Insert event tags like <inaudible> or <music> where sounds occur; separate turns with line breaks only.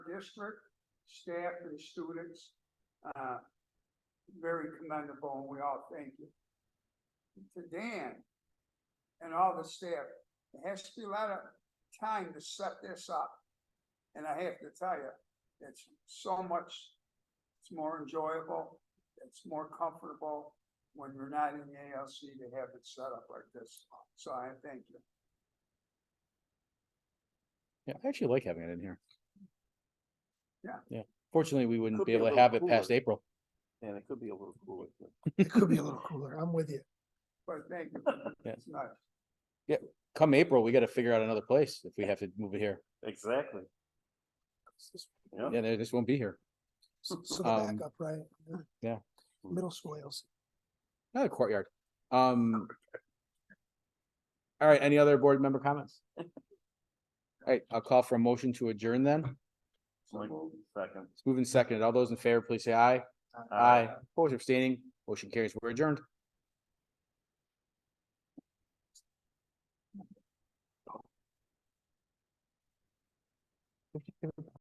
district, staff and students. Uh, very commendable and we all thank you. To Dan and all the staff, it has to be a lot of time to set this up. And I have to tell you, it's so much, it's more enjoyable, it's more comfortable when you're not in the ALC to have it set up like this. So I thank you.
Yeah, I actually like having it in here.
Yeah.
Yeah, fortunately, we wouldn't
Could
be
be a
able to
little
have it past
cooler.
April.
And it could be a little cooler. but-
It could be a little cooler. I'm with you.
But thank you.
Yeah.
It's nice.
Come April, we gotta figure out another place if we have to move it here.
Exactly. Yeah,
Yeah, they just won't be here. <laughs>
S- So the
Um,
backup, right?
yeah.
Middle school ALC.
Another courtyard.
<laughs>
Um. All right, any other board member comments?
<laughs>
All right, I'll call for a motion to adjourn then. It's
So moved.
second.
moved and seconded. All those in favor, please say aye. Aye. Opposed, or abstaining, motion carries. We're adjourned.